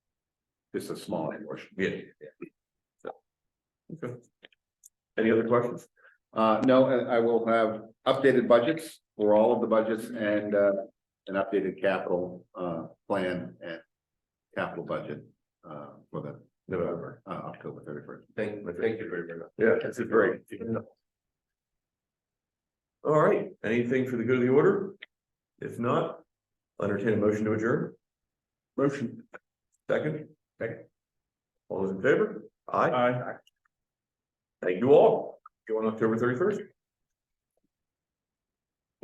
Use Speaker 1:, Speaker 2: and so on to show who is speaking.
Speaker 1: Just a small portion. Yeah. So, Okay. Any other questions? Uh, no, and I will have updated budgets for all of the budgets and, uh, an updated capital, uh, plan and capital budget, uh, for the November, uh, October thirty first.
Speaker 2: Thank, thank you very much.
Speaker 3: Yeah, that's a very. All right, anything for the good of the order? If not, I'll entertain a motion to adjourn. Motion. Second. Second. All those in favor? Aye. Aye. Thank you all. Go on October thirty first.